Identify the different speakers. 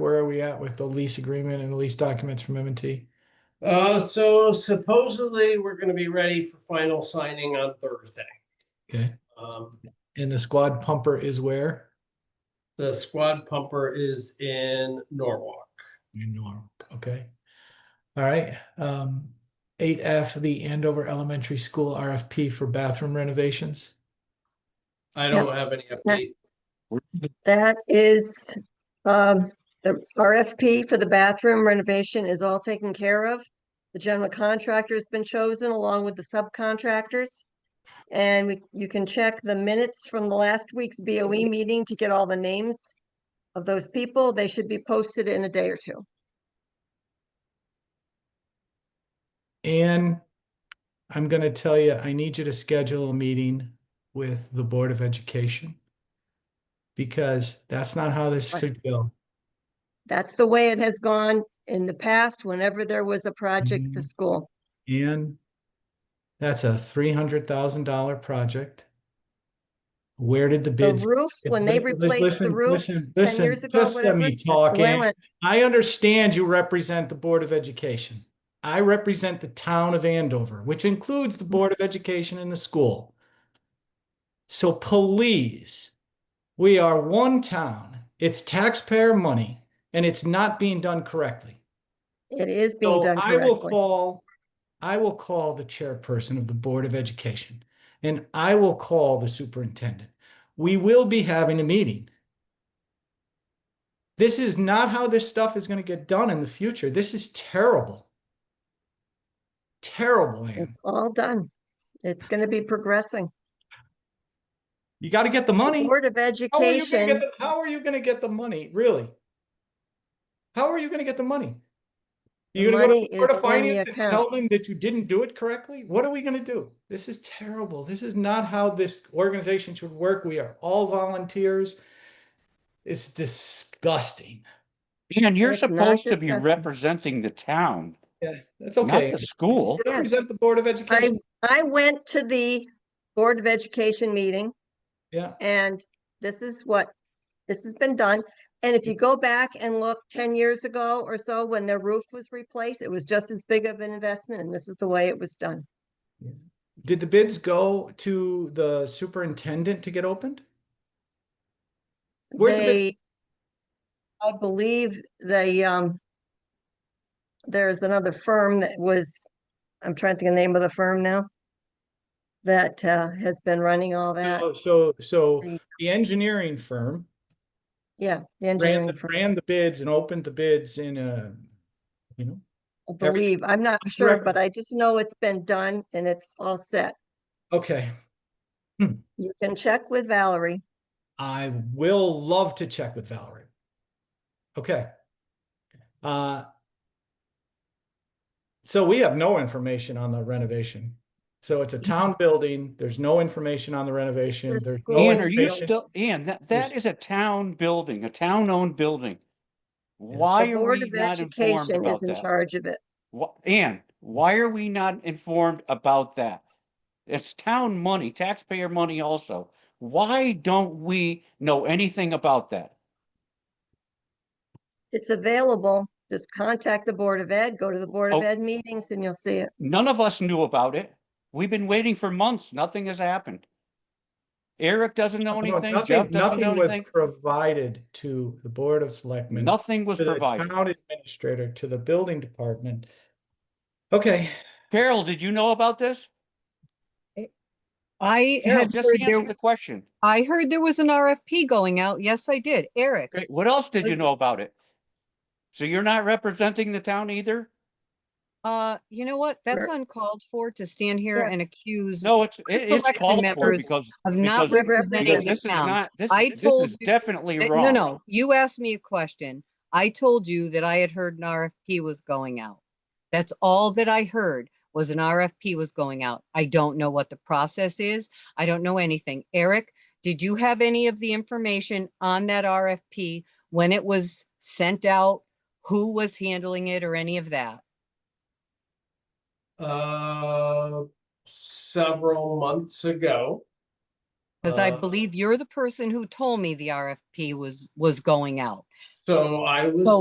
Speaker 1: where are we at with the lease agreement and the lease documents from m and T?
Speaker 2: Uh, so supposedly we're gonna be ready for final signing on Thursday.
Speaker 1: Okay.
Speaker 2: Um,
Speaker 1: And the squad pumper is where?
Speaker 2: the squad pumper is in Norwalk.
Speaker 1: In Norwalk, okay. All right, um, eight F, the Andover Elementary School RFP for bathroom renovations.
Speaker 2: I don't have any update.
Speaker 3: That is, um, the RFP for the bathroom renovation is all taken care of. The general contractor's been chosen along with the subcontractors. And we, you can check the minutes from the last week's BOE meeting to get all the names of those people. They should be posted in a day or two.
Speaker 1: And I'm gonna tell you, I need you to schedule a meeting with the Board of Education. Because that's not how this
Speaker 3: Right.
Speaker 1: should go.
Speaker 3: That's the way it has gone in the past, whenever there was a project at the
Speaker 1: Mhm.
Speaker 3: school.
Speaker 1: And that's a three hundred thousand dollar project. Where did the
Speaker 3: The
Speaker 1: bids?
Speaker 3: roof, when they
Speaker 1: Listen,
Speaker 3: replaced the
Speaker 1: listen,
Speaker 3: roof
Speaker 1: listen,
Speaker 3: ten
Speaker 1: listen,
Speaker 3: years ago,
Speaker 1: just let
Speaker 3: whatever.
Speaker 1: me
Speaker 3: that's the
Speaker 1: talk,
Speaker 3: way it
Speaker 1: Ann.
Speaker 3: went.
Speaker 1: I understand you represent the Board of Education. I represent the town of Andover, which includes the Board of Education and the school. So please, we are one town. It's taxpayer money and it's not being done correctly.
Speaker 3: It is being
Speaker 1: So
Speaker 3: done
Speaker 1: I will
Speaker 3: correctly.
Speaker 1: call, I will call the chairperson of the Board of Education and I will call the superintendent. We will be having a meeting. This is not how this stuff is gonna get done in the future. This is terrible. Terrible, Ann.
Speaker 3: It's all done. It's gonna be progressing.
Speaker 1: You gotta get the
Speaker 3: The
Speaker 1: money.
Speaker 3: Board of
Speaker 1: How are you gonna get
Speaker 3: Education,
Speaker 1: the- How are you gonna get the money, really? How are you gonna get the money?
Speaker 3: The
Speaker 1: You're gonna go
Speaker 3: money
Speaker 1: to the Board of
Speaker 3: is in the
Speaker 1: Finance and
Speaker 3: account.
Speaker 1: tell them that you didn't do it correctly? What are we gonna do? This is terrible. This is not how this organization should work. We are all volunteers. It's disgusting.
Speaker 4: And you're
Speaker 3: It's not
Speaker 4: supposed to be
Speaker 3: discussed.
Speaker 4: representing the town,
Speaker 1: Yeah, that's
Speaker 4: not
Speaker 1: okay.
Speaker 4: the school.
Speaker 3: Yes.
Speaker 1: Represent the Board of Education.
Speaker 3: I went to the Board of Education meeting
Speaker 1: Yeah,
Speaker 3: and this is what, this has been done. And if you go back and look ten years ago or so, when their roof was replaced, it was just as big of an investment and this is the way it was done.
Speaker 1: did the bids go to the superintendent to get opened? Where's the bid-
Speaker 3: They, I believe they, um, there's another firm that was, I'm trying to think of the name of the firm now, that, uh, has been running all
Speaker 4: Oh,
Speaker 3: that.
Speaker 1: So- Oh, So, so
Speaker 3: the-
Speaker 1: the engineering firm
Speaker 3: Yeah, the
Speaker 1: ran
Speaker 3: engineering
Speaker 1: the,
Speaker 3: firm,
Speaker 1: ran the bids and opened the bids in a, you know,
Speaker 3: I
Speaker 1: every-
Speaker 3: believe. I'm not sure,
Speaker 1: correct.
Speaker 3: but I just know it's been done and it's all set.
Speaker 1: okay,
Speaker 3: You can check with Valerie.
Speaker 1: I will love to check with Valerie. Okay. Uh, so we have no information on the renovation. So it's a
Speaker 4: Mm-hmm.
Speaker 1: town building. There's no information on the renovation.
Speaker 3: The
Speaker 1: There's
Speaker 3: school-
Speaker 1: no
Speaker 4: Ian, are you
Speaker 1: information.
Speaker 4: still, Ian, that, that is a town building, a town-owned building. Why
Speaker 3: The
Speaker 4: are
Speaker 3: Board
Speaker 4: we
Speaker 3: of
Speaker 4: not informed
Speaker 3: Education
Speaker 4: about
Speaker 3: is in
Speaker 4: that?
Speaker 3: charge of it.
Speaker 4: Wha- Ian, why are we not informed about that? It's town money, taxpayer money also. Why don't we know anything about that?
Speaker 3: It's available. Just contact the Board of Ed, go to the Board of
Speaker 4: Oh.
Speaker 3: Ed meetings and you'll see it.
Speaker 4: None of us knew about it. We've been waiting for months. Nothing has happened. Eric doesn't
Speaker 1: No,
Speaker 4: know anything.
Speaker 1: nothing-
Speaker 4: Jeff doesn't know
Speaker 1: nothing was
Speaker 4: anything.
Speaker 1: Provided to the Board of Selectmen.
Speaker 4: Nothing was
Speaker 1: to the
Speaker 4: provided.
Speaker 1: Town administrator, to the building department. Okay,
Speaker 4: Carol, did you know about this?
Speaker 5: I
Speaker 4: Carol,
Speaker 5: had
Speaker 4: just
Speaker 5: heard
Speaker 4: answer the
Speaker 5: there,
Speaker 4: question.
Speaker 5: I heard there was an RFP going out. Yes, I did. Eric,
Speaker 4: Great. What else did you know about it? So you're not representing the town either?
Speaker 5: uh, you know what? That's uncalled for to stand here
Speaker 3: Sure.
Speaker 5: and accuse of
Speaker 4: No, it's, it- it's
Speaker 5: selectmen
Speaker 4: called for
Speaker 5: members
Speaker 4: because,
Speaker 5: not
Speaker 4: because- because
Speaker 5: representing
Speaker 4: because
Speaker 5: the
Speaker 4: this is
Speaker 5: town.
Speaker 4: not, this,
Speaker 5: I
Speaker 4: is- this
Speaker 5: told
Speaker 4: is
Speaker 5: you
Speaker 4: definitely
Speaker 5: Uh,
Speaker 4: wrong.
Speaker 5: No, no, you asked me a question. I told you that I had heard an RFP was going out. That's all that I heard was an RFP was going out. I don't know what the process is. I don't know anything. Eric, did you have any of the information on that RFP when it was sent out? Who was handling it or any of that?
Speaker 2: Uh, several months ago.
Speaker 5: Because I
Speaker 2: Uh,
Speaker 5: believe you're the person who told me the RFP was, was going out.
Speaker 6: So I was
Speaker 2: So